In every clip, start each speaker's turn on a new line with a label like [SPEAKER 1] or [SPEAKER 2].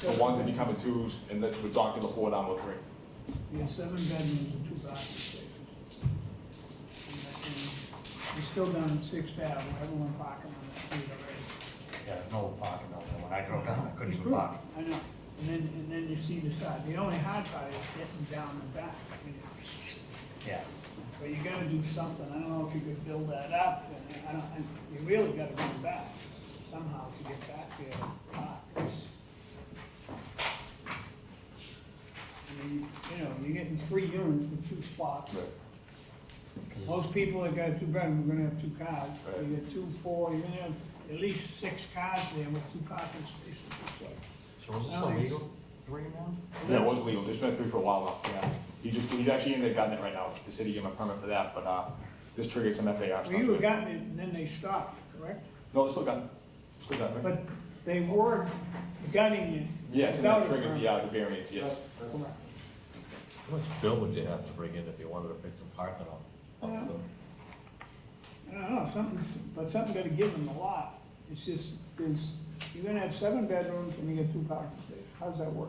[SPEAKER 1] The ones that become a twos, and that we're talking the four down to three.
[SPEAKER 2] We have seven bedrooms and two parking spaces. And that's, um, We're still down in Sixth Ave, where everyone parking on that street already.
[SPEAKER 3] Yeah, there's no parking out there. When I drove down, I couldn't even park.
[SPEAKER 2] I know, and then, and then you see the side, the only hard part is getting down and back, I mean,
[SPEAKER 3] Yeah.
[SPEAKER 2] but you gotta do something, I don't know if you could build that up, and I don't, and you really gotta come back somehow to get back there and park. It's- I mean, you know, you're getting three units with two spots. Most people that got a two bedroom, are gonna have two cars,
[SPEAKER 1] Right.
[SPEAKER 2] you get two, four, you're gonna have at least six cars there with two parking spaces, it's like.
[SPEAKER 3] So is this
[SPEAKER 2] No, it's-
[SPEAKER 3] illegal? Three now?
[SPEAKER 1] Yeah, it was legal, there's been three for a while now, yeah. He just, he's actually in there gotten it right now, the city gave him a permit for that, but, uh, this triggered some FAR
[SPEAKER 2] Well, you were
[SPEAKER 1] stuff.
[SPEAKER 2] gotten it, and then they stopped, correct?
[SPEAKER 1] No, it's still got, still got, right?
[SPEAKER 2] But they were gutting it.
[SPEAKER 1] Yes, and that
[SPEAKER 2] without a
[SPEAKER 1] triggered the, uh, the variance, yes.
[SPEAKER 2] permit. Correct.
[SPEAKER 4] How much fill would you have to bring in if you wanted to fix a parking lot?
[SPEAKER 2] Yeah. I don't know, something's, but something gotta give them a lot, it's just, there's, you're gonna have seven bedrooms and you get two parking spaces, how's that work?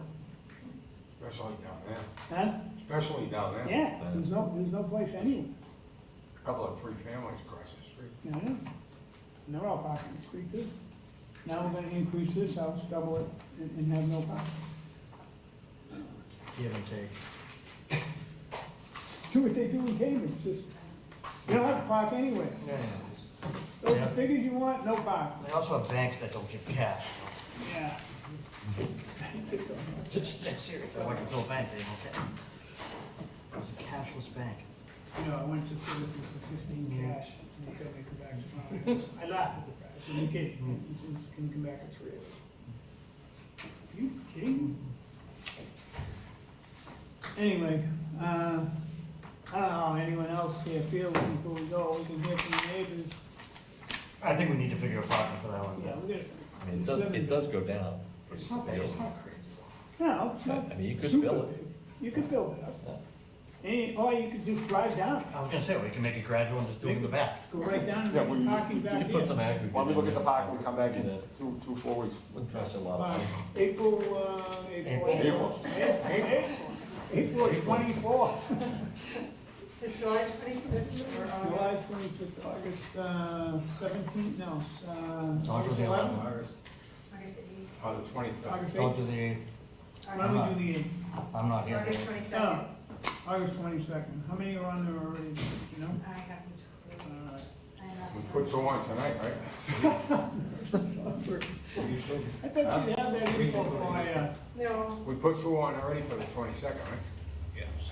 [SPEAKER 5] Especially down there,
[SPEAKER 2] Huh?
[SPEAKER 5] especially down there.
[SPEAKER 2] Yeah, there's no, there's no place anywhere,
[SPEAKER 5] a Couple of three families across the street.
[SPEAKER 2] you know? And they're all parking the street too. Now we're gonna increase this house, double it, and, and have no parking.
[SPEAKER 3] Give and take.
[SPEAKER 2] Do what they do in Cambridge, just, you don't have to park anywhere.
[SPEAKER 3] Yeah.
[SPEAKER 2] Those
[SPEAKER 3] Yeah.
[SPEAKER 2] figures you want, no parking.
[SPEAKER 3] They also have banks that don't give cash.
[SPEAKER 2] Yeah.
[SPEAKER 3] Just that serious. I went to a bank, they don't care. It's a cashless bank.
[SPEAKER 2] You know, I went to Citizens for fifteen cash, and they told me to come back tomorrow. I laughed at the guy, I said, you kidding,
[SPEAKER 4] Mm-hmm.
[SPEAKER 2] he says, can you come back at three? I said, You kidding? Anyway, uh, I don't know how anyone else here feels before we go, we can hear from the neighbors.
[SPEAKER 3] I think we need to figure a parking for that one.
[SPEAKER 2] Yeah, we gotta.
[SPEAKER 4] I mean, it does, it does go down. pretty
[SPEAKER 2] It's not bad, it's
[SPEAKER 4] severely.
[SPEAKER 2] not crazy. No, it's not.
[SPEAKER 4] I mean, you could
[SPEAKER 2] super
[SPEAKER 4] fill it.
[SPEAKER 2] big. You could build it up. And, or you could just drive down,
[SPEAKER 3] I was gonna say, we can make it gradual and just do it in the back.
[SPEAKER 2] go right down
[SPEAKER 1] Yeah,
[SPEAKER 2] and
[SPEAKER 1] we-
[SPEAKER 2] parking
[SPEAKER 4] You
[SPEAKER 2] back
[SPEAKER 4] could put
[SPEAKER 2] in.
[SPEAKER 4] some aggregate.
[SPEAKER 1] Why don't we look
[SPEAKER 4] in
[SPEAKER 1] at the
[SPEAKER 4] there.
[SPEAKER 1] park, we'll come back in
[SPEAKER 4] Yeah.
[SPEAKER 1] two, two, four weeks.
[SPEAKER 4] Wouldn't cost a lot
[SPEAKER 2] Uh,
[SPEAKER 4] of money.
[SPEAKER 2] April, uh, April.
[SPEAKER 1] April.
[SPEAKER 2] Yeah, April. April twenty-fourth.
[SPEAKER 6] Is July twenty-fifth or
[SPEAKER 2] Uh, July twenty-fifth, August, uh, seventeenth, no, s- uh.
[SPEAKER 3] August the eleventh.
[SPEAKER 5] August,
[SPEAKER 6] August eighth,
[SPEAKER 5] on the twenty-third.
[SPEAKER 2] August
[SPEAKER 3] Don't
[SPEAKER 2] eighth,
[SPEAKER 3] do the eighth.
[SPEAKER 2] why
[SPEAKER 6] August-
[SPEAKER 2] don't we do the eighth?
[SPEAKER 3] I'm not here.
[SPEAKER 6] August
[SPEAKER 2] Oh,
[SPEAKER 6] twenty-second.
[SPEAKER 2] August twenty-second, how many are on there already, you know?
[SPEAKER 6] I haven't,
[SPEAKER 2] Uh,
[SPEAKER 6] I haven't.
[SPEAKER 5] We put so on tonight, right?
[SPEAKER 2] I thought you'd have that info by, uh,
[SPEAKER 6] No,
[SPEAKER 5] We put so on already for the twenty-second, right?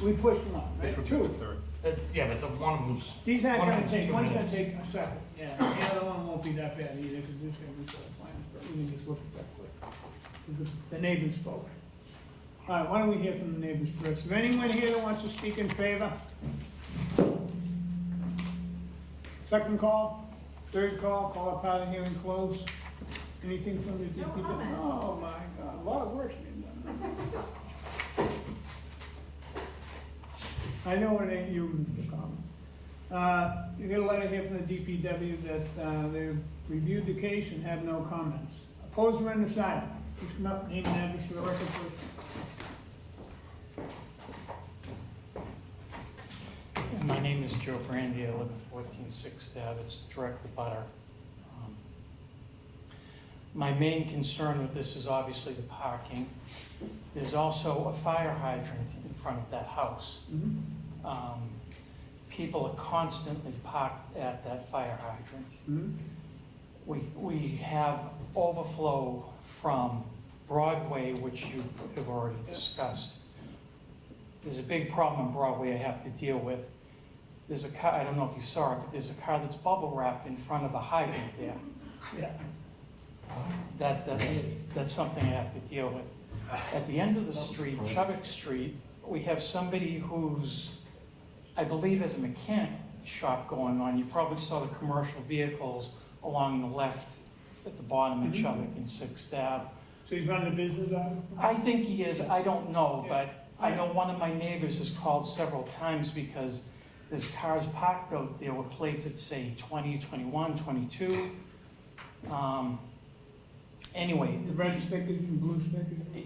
[SPEAKER 2] we pushed them up, right? Two.
[SPEAKER 5] third.
[SPEAKER 3] It's- Yeah, but the one who's,
[SPEAKER 2] These aren't
[SPEAKER 3] One of
[SPEAKER 2] gonna
[SPEAKER 3] them's
[SPEAKER 2] take,
[SPEAKER 3] two
[SPEAKER 2] one's gonna
[SPEAKER 3] minutes.
[SPEAKER 2] take a second, yeah, the other one won't be that bad either, because this gonna be sort of planned, but we can just look at that quick. 'Cause the- The neighbors spoke. All right, why don't we hear from the neighbors first? Is there anyone here that wants to speak in favor? Second call, third call, call up out of here and close. Anything from the
[SPEAKER 6] No
[SPEAKER 2] DPW?
[SPEAKER 6] comment.
[SPEAKER 2] Oh, my God, a lot of work's been done. I know it ain't you, Mr. Common. Uh, You got a letter here from the DPW that uh, they've reviewed the case and have no comments. Opposed or undecided? Please come up, name and address for the record, please.
[SPEAKER 7] My name is Joe Brandy, I live at fourteen Sixth Ave, it's direct abutter. Um, My main concern with this is obviously the parking. There's also a fire hydrant in front of that house.
[SPEAKER 2] Mhm,
[SPEAKER 7] Um, People are constantly parked at that fire hydrant.
[SPEAKER 2] mhm.
[SPEAKER 7] We, we have overflow from Broadway, which you have already discussed. There's a big problem on Broadway I have to deal with. There's a car, I don't know if you saw it, but there's a car that's bubble wrapped in front of a hydrant there.
[SPEAKER 2] Yeah.
[SPEAKER 7] That, that's, that's something I have to deal with. At the end of the street, Chubbuck Street, we have somebody who's, I believe has a mechanic shop going on. You probably saw the commercial vehicles along the left at the bottom of
[SPEAKER 2] Mhm.
[SPEAKER 7] Chubbuck and Sixth Ave.
[SPEAKER 2] So he's running a business out of it?
[SPEAKER 7] I think he is, I don't know, but I know one of my neighbors has called several times because there's cars parked out there with plates that say 20, 21, 22. Um, Anyway,
[SPEAKER 2] The red stickers and blue stickers?